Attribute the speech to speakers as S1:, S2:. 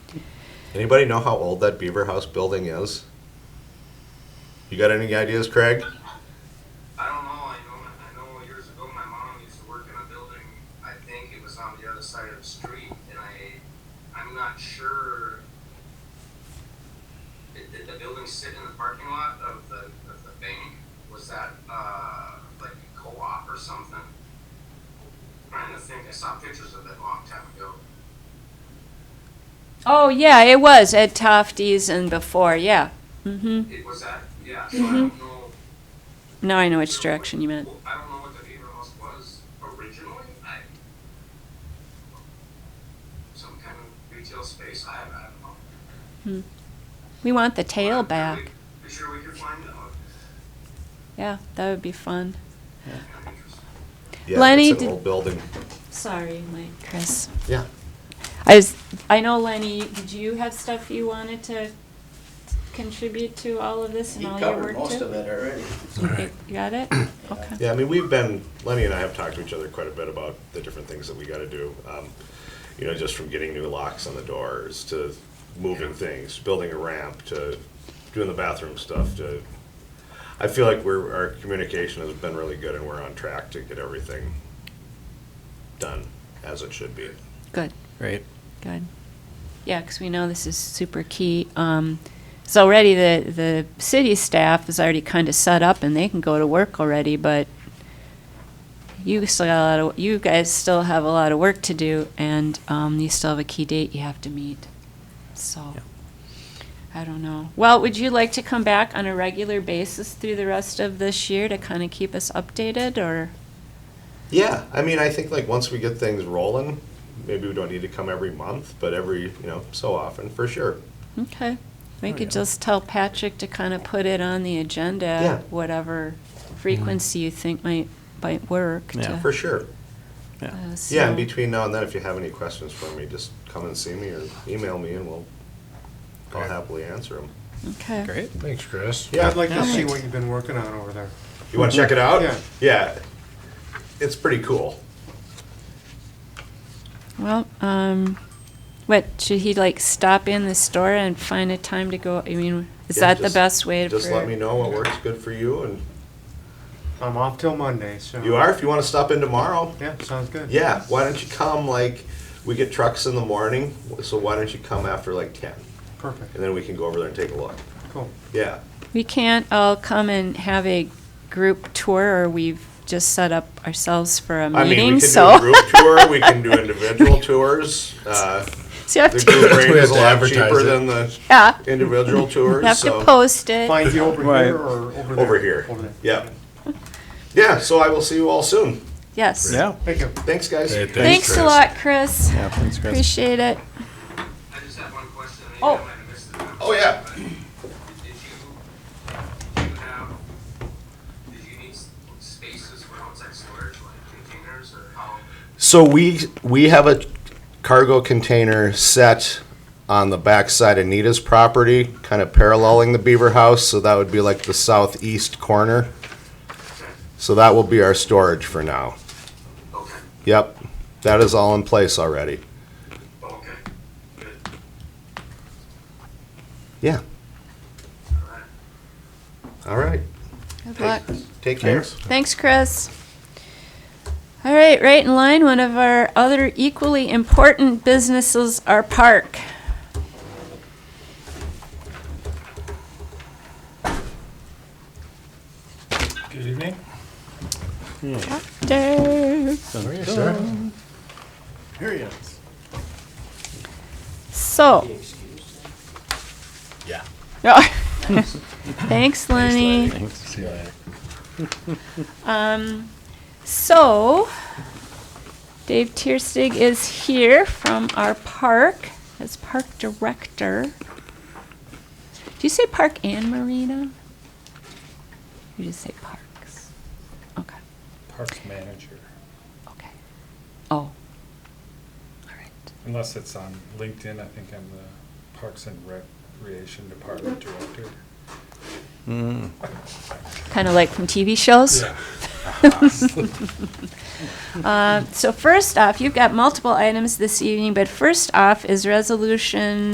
S1: Anybody know how old that Beaver House building is? You got any ideas, Craig?
S2: I don't know. I know. I know. Years ago, my mom used to work in a building. I think it was on the other side of the street, and I, I'm not sure. Did, did the building sit in the parking lot of the of the bank? Was that uh, like a co-op or something? trying to think. I saw pictures of it a long time ago.
S3: Oh, yeah, it was at Tofty's and before, yeah. Mm-hmm.
S2: It was that. Yeah. So I don't know.
S3: Now I know which direction you meant.
S2: I don't know what the Beaver House was originally. I, some kind of retail space. I, I don't know.
S3: We want the tail
S2: I'm- I'm
S3: back.
S2: pretty sure we could find out.
S3: Yeah, that would be fun.
S2: Kind of interesting.
S1: Yeah,
S3: Lenny,
S1: it's an
S3: did-
S1: old building.
S3: Sorry, Mike, Chris.
S1: Yeah.
S3: I was, I know Lenny, did you have stuff you wanted to contribute to all of this and
S4: He
S3: all your
S4: covered
S3: work
S4: most of
S3: too?
S4: it already.
S3: You got it? Okay.
S1: Yeah, I mean, we've been, Lenny and I have talked to each other quite a bit about the different things that we gotta do. Um, You know, just from getting new locks on the doors to moving things, building a ramp to doing the bathroom stuff to, I feel like we're, our communication has been really good and we're on track to get everything done as it should be.
S3: Good.
S5: Right.
S3: Good. Yeah, because we know this is super key. Um, it's already the, the city staff is already kind of set up and they can go to work already, but you still got a lot of, you guys still have a lot of work to do and, um, you still have a key date you have to meet. So,
S5: Yeah.
S3: I don't know. Well, would you like to come back on a regular basis through the rest of this year to kind of keep us updated or?
S1: Yeah, I mean, I think like once we get things rolling, maybe we don't need to come every month, but every, you know, so often, for sure.
S3: Okay, we
S5: Oh, yeah.
S3: could just tell Patrick to kind of put it on the
S1: Yeah. Mm-hmm.
S3: agenda, whatever frequency you think might, might work
S5: Yeah.
S3: to.
S1: For sure.
S5: Yeah.
S3: uh,
S1: Yeah,
S3: so-
S1: and between now and then, if you have any questions for me, just come and see me or email me and we'll, I'll happily answer them.
S3: Okay,
S5: Great.
S6: Thanks, Chris.
S1: Yeah.
S6: I'd like to see
S3: Alright.
S6: what you've been working on over there.
S1: You wanna check it out?
S6: Yeah.
S1: Yeah. It's pretty cool.
S3: well, um, what, should he like stop in the store and find a time to go, I mean, is
S1: Yeah,
S3: that the
S1: just-
S3: best way to?
S1: Just
S3: for-
S1: let me know what works good for you and
S6: I'm off till Monday, so.
S1: you are, if you wanna stop in tomorrow.
S6: Yeah, sounds good.
S1: Yeah, why don't you come like, we get trucks in the morning, so why don't you come after like ten?
S6: Perfect,
S1: And then we can go over there and take a look.
S6: cool.
S1: Yeah.
S3: We can't all come and have a group tour, or we've just set up ourselves for
S1: I
S3: a
S1: mean, we can
S3: meeting,
S1: do a
S3: so.
S1: group tour, we can do individual tours. Uh,
S3: So you have
S1: The
S3: to,
S1: group rate
S6: We have
S1: is a
S6: to
S1: lot
S6: advertise
S1: cheaper
S6: it.
S1: than the
S3: yeah,
S1: individual
S3: you
S1: tours,
S3: have to
S1: so.
S3: post it.
S6: Find you over
S5: Right.
S6: here or over there?
S1: Over here,
S6: Over there.
S1: yeah. Yeah, so I will see you all soon.
S3: Yes.
S5: Yeah.
S6: Thank you.
S1: Thanks, guys.
S3: Thanks a lot, Chris.
S5: Yeah. Thanks, Chris.
S3: Appreciate it.
S2: I just have one question. Maybe
S3: Oh.
S2: I might have missed it.
S1: Oh, yeah.
S2: But Did you, did you have, did you need s- spaces for outside storage, like containers or how?
S1: So we, we have a cargo container set on the backside of Nita's property, kind of paralleling the Beaver House, so that would be like the southeast corner. So that will be our storage for now.
S2: Okay,
S1: Yep, that is all in place already.
S2: okay, good,
S1: Yeah,
S2: all right.
S1: all right.
S3: Good luck.
S1: Take care.
S3: Thanks, Chris. All right, right in line, one of our other equally important businesses, our park.
S6: Good evening.
S3: Dave.
S6: Where are you, sir?
S4: Here he is.
S3: So.
S4: Yeah.
S3: Yeah. Thanks, Lenny.
S5: Thanks.
S3: Um, so, Dave Tierstig is here from our park as park director. Do you say park and marina? You just say parks. Okay.
S7: Parks manager,
S3: Okay. Oh. All right.
S7: unless it's on LinkedIn, I think I'm the Parks and Recreation Department Director.
S5: Mm.
S3: Kind of like from TV shows. Uh, so first off, you've got multiple items this evening, but first off is resolution